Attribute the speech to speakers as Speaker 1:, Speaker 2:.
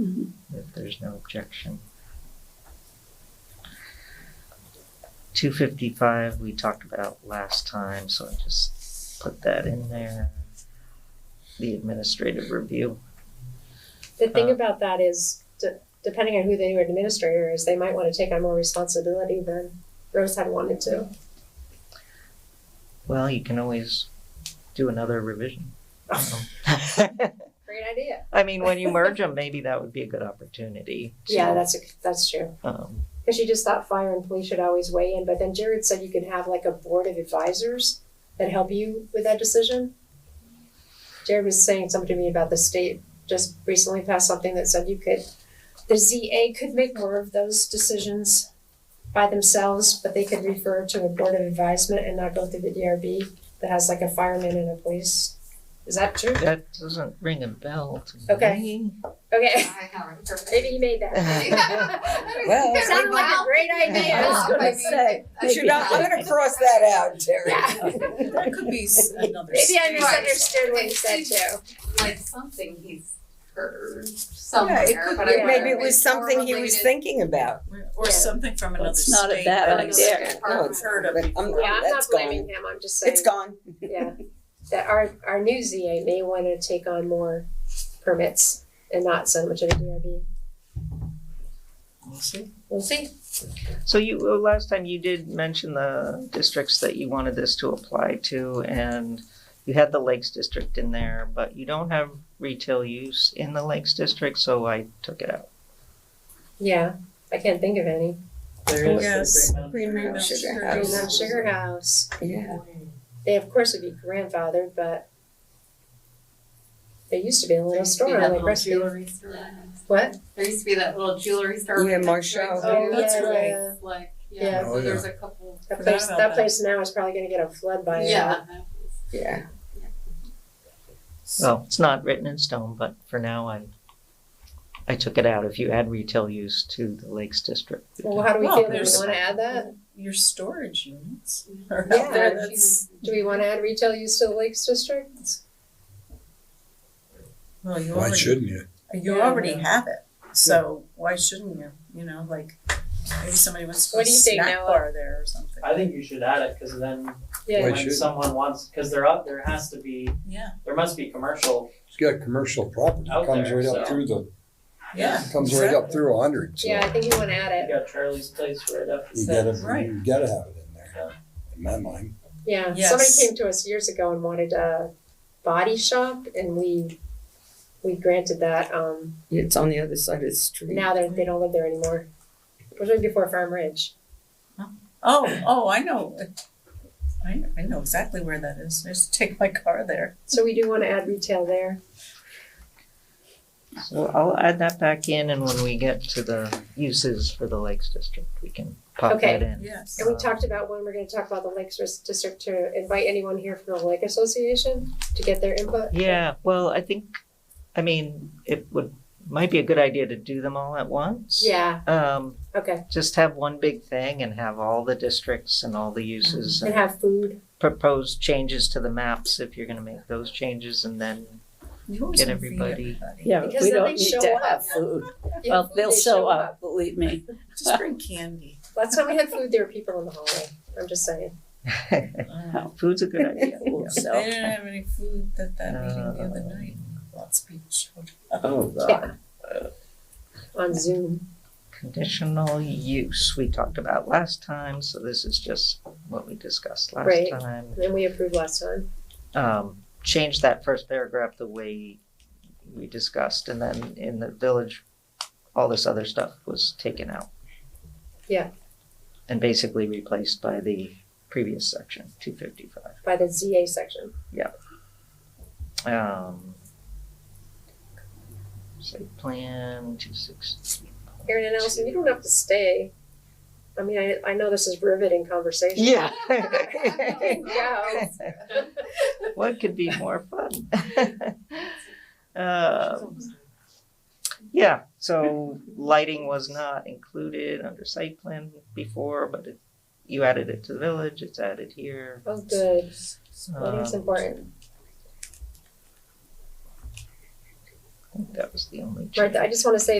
Speaker 1: Mhm.
Speaker 2: if there's no objection. Two fifty-five, we talked about last time, so I just put that in there. The administrative review,
Speaker 3: The thing
Speaker 2: Uh,
Speaker 3: about that is, de- depending on who the new administrator is, they might want to take on more responsibility than Rose had wanted to.
Speaker 2: well, you can always do another revision.
Speaker 3: Great idea.
Speaker 2: I mean, when you merge them, maybe that would be a good opportunity. to,
Speaker 3: Yeah, that's a, that's true.
Speaker 2: Um,
Speaker 3: Because she just thought fire and police should always weigh in, but then Jared said you could have like a board of advisors that help you with that decision. Jared was saying something to me about the state just recently passed something that said you could, the ZA could make more of those decisions by themselves, but they could refer to a board of advisement and not go through the DRB that has like a fireman and a police. Is that true?
Speaker 2: that doesn't ring a bell to me.
Speaker 3: Okay. Okay,
Speaker 4: I haven't.
Speaker 3: maybe he made that.
Speaker 5: Well,
Speaker 4: It
Speaker 3: Sounded like a great idea.
Speaker 5: I was gonna
Speaker 4: Maybe.
Speaker 5: say, but you're not, I'm gonna cross that out, Terry. That could be s- another.
Speaker 3: Maybe I
Speaker 5: state.
Speaker 3: misunderstood what he said too.
Speaker 4: like something he's heard
Speaker 5: Yeah,
Speaker 4: somewhere,
Speaker 5: it could
Speaker 4: but
Speaker 5: be.
Speaker 4: I
Speaker 5: Maybe
Speaker 4: wonder
Speaker 5: it
Speaker 4: if
Speaker 5: was
Speaker 4: it's
Speaker 5: something he
Speaker 4: more
Speaker 5: was
Speaker 4: related-
Speaker 5: thinking about.
Speaker 6: Or
Speaker 3: Yeah.
Speaker 6: something from another
Speaker 5: It's
Speaker 6: state.
Speaker 5: not a bad
Speaker 6: that he's
Speaker 4: idea.
Speaker 6: No, it's heard of
Speaker 5: But I'm-
Speaker 6: before.
Speaker 3: Yeah, I'm not
Speaker 5: That's gone.
Speaker 3: blaming him, I'm just saying.
Speaker 5: It's gone.
Speaker 3: Yeah, that our, our new ZA may wanna take on more permits and not so much of a DRB.
Speaker 2: We'll see.
Speaker 3: We'll see.
Speaker 2: So you, uh, last time you did mention the districts that you wanted this to apply to and you had the Lakes District in there, but you don't have retail use in the Lakes District, so I took it out.
Speaker 3: Yeah, I can't think of any.
Speaker 2: There is-
Speaker 6: Yes.
Speaker 5: Green Mountain
Speaker 6: Mountain
Speaker 5: Sugar
Speaker 6: Sugar
Speaker 3: Green
Speaker 5: House.
Speaker 3: Mountain Sugar House,
Speaker 5: Yeah,
Speaker 3: they of course would be grandfathered, but there used to be a
Speaker 4: There
Speaker 3: little
Speaker 4: used to be
Speaker 3: store
Speaker 4: that
Speaker 3: on
Speaker 4: little
Speaker 3: Lake Rescue.
Speaker 4: jewelry store.
Speaker 3: What?
Speaker 4: There used to be that little jewelry store.
Speaker 5: Yeah,
Speaker 4: with the
Speaker 5: Marshall.
Speaker 4: drinks
Speaker 3: Oh,
Speaker 4: and
Speaker 3: that's
Speaker 4: everything.
Speaker 3: right.
Speaker 4: Like,
Speaker 3: Yeah.
Speaker 4: yeah,
Speaker 7: Oh,
Speaker 4: so
Speaker 7: yeah.
Speaker 4: there's a couple,
Speaker 3: That
Speaker 6: Forgot
Speaker 3: place,
Speaker 6: about
Speaker 3: that
Speaker 6: that.
Speaker 3: place now is probably gonna get a flood
Speaker 5: Oh,
Speaker 3: by now.
Speaker 4: yeah.
Speaker 5: yeah.
Speaker 2: Well, it's not written in stone, but for now I, I took it out if you add retail use to the Lakes District.
Speaker 3: Well, how do we
Speaker 6: Well,
Speaker 3: feel, do we
Speaker 6: there's-
Speaker 3: wanna add that?
Speaker 6: Your storage units are
Speaker 3: Yeah,
Speaker 6: out there, that's,
Speaker 3: Do we wanna add retail use to the Lakes District?
Speaker 6: well, you
Speaker 7: Why
Speaker 6: already,
Speaker 7: shouldn't you?
Speaker 6: you already have it, so why shouldn't you, you know, like, maybe somebody wants to
Speaker 3: What
Speaker 6: put a
Speaker 3: do you think,
Speaker 6: snack
Speaker 3: Noah?
Speaker 6: bar there or something.
Speaker 8: I think you should add it, cause then
Speaker 3: Yeah,
Speaker 7: Why
Speaker 8: when
Speaker 7: should-
Speaker 8: someone wants, cause there up, there has to be,
Speaker 6: Yeah,
Speaker 8: there must be commercial.
Speaker 7: It's got commercial property,
Speaker 8: Out
Speaker 7: comes
Speaker 8: there,
Speaker 7: right up
Speaker 8: so-
Speaker 7: through the,
Speaker 6: yeah.
Speaker 7: comes right up through a hundred, so
Speaker 3: yeah, I think you wanna add it.
Speaker 8: You got Charlie's place right up.
Speaker 7: you gotta,
Speaker 6: Right.
Speaker 7: you gotta have it in there, in my mind.
Speaker 3: Yeah, somebody
Speaker 6: Yes.
Speaker 3: came to us years ago and wanted a body shop, and we we granted that. Um,
Speaker 5: It's on the other side of the street.
Speaker 3: now they they don't live there anymore. It was right before Farm Ridge.
Speaker 6: Oh, oh, I know, I, I know exactly where that is, I used to take my car there.
Speaker 3: So we do want to add retail there.
Speaker 2: So I'll add that back in and when we get to the uses for the Lakes District, we can pop
Speaker 3: Okay.
Speaker 2: that in.
Speaker 6: Yes.
Speaker 9: Uh.
Speaker 3: And we talked about when we're going to talk about the Lakes Res- District to invite anyone here from the Lake Association to get their input.
Speaker 2: Yeah, well, I think, I mean, it would, might be a good idea to do them all at once.
Speaker 3: Yeah.
Speaker 2: Um,
Speaker 3: Okay.
Speaker 2: just have one big thing and have all the districts and all the uses
Speaker 3: And
Speaker 2: and
Speaker 3: have food.
Speaker 2: propose changes to the maps if you're gonna make those changes and then
Speaker 6: You always
Speaker 2: get
Speaker 6: convene
Speaker 2: everybody.
Speaker 9: Yeah,
Speaker 3: Because
Speaker 9: we
Speaker 3: then
Speaker 9: don't
Speaker 3: they
Speaker 9: need
Speaker 3: show
Speaker 9: to
Speaker 3: up.
Speaker 9: have food.
Speaker 3: Yeah,
Speaker 9: Well,
Speaker 3: food,
Speaker 9: they'll
Speaker 3: they
Speaker 9: show up, believe me.
Speaker 6: Just bring candy.
Speaker 3: Last time we had food, there were people in the hallway. I'm just saying.
Speaker 2: Food's a good idea.
Speaker 9: We'll
Speaker 6: They
Speaker 9: sell.
Speaker 6: didn't have any food at that meeting the other
Speaker 2: Uh,
Speaker 6: night, lots of people showed
Speaker 5: Oh,
Speaker 3: Yeah. On Zoom.
Speaker 2: Conditional use, we talked about last time, so this is just what we discussed last
Speaker 3: Right.
Speaker 2: time.
Speaker 3: And we approved last time.
Speaker 2: Um, change that first paragraph the way we discussed and then in the village, all this other stuff was taken out.
Speaker 3: Yeah.
Speaker 2: And basically replaced by the previous section, two fifty-five.
Speaker 3: By the ZA section.
Speaker 2: Um, site plan, two sixty.
Speaker 3: Aaron and Allison, you don't have to stay. I mean, I, I know this is riveting conversation.
Speaker 2: Yeah.
Speaker 3: Yeah.
Speaker 2: What could be more fun? Um, yeah, so lighting was not included under site plan before, but it, you added it to the village, it's added here.
Speaker 3: Oh, good. I think it's
Speaker 2: Um,
Speaker 3: important.
Speaker 2: I think That was the only change.
Speaker 3: Martha, I just wanna say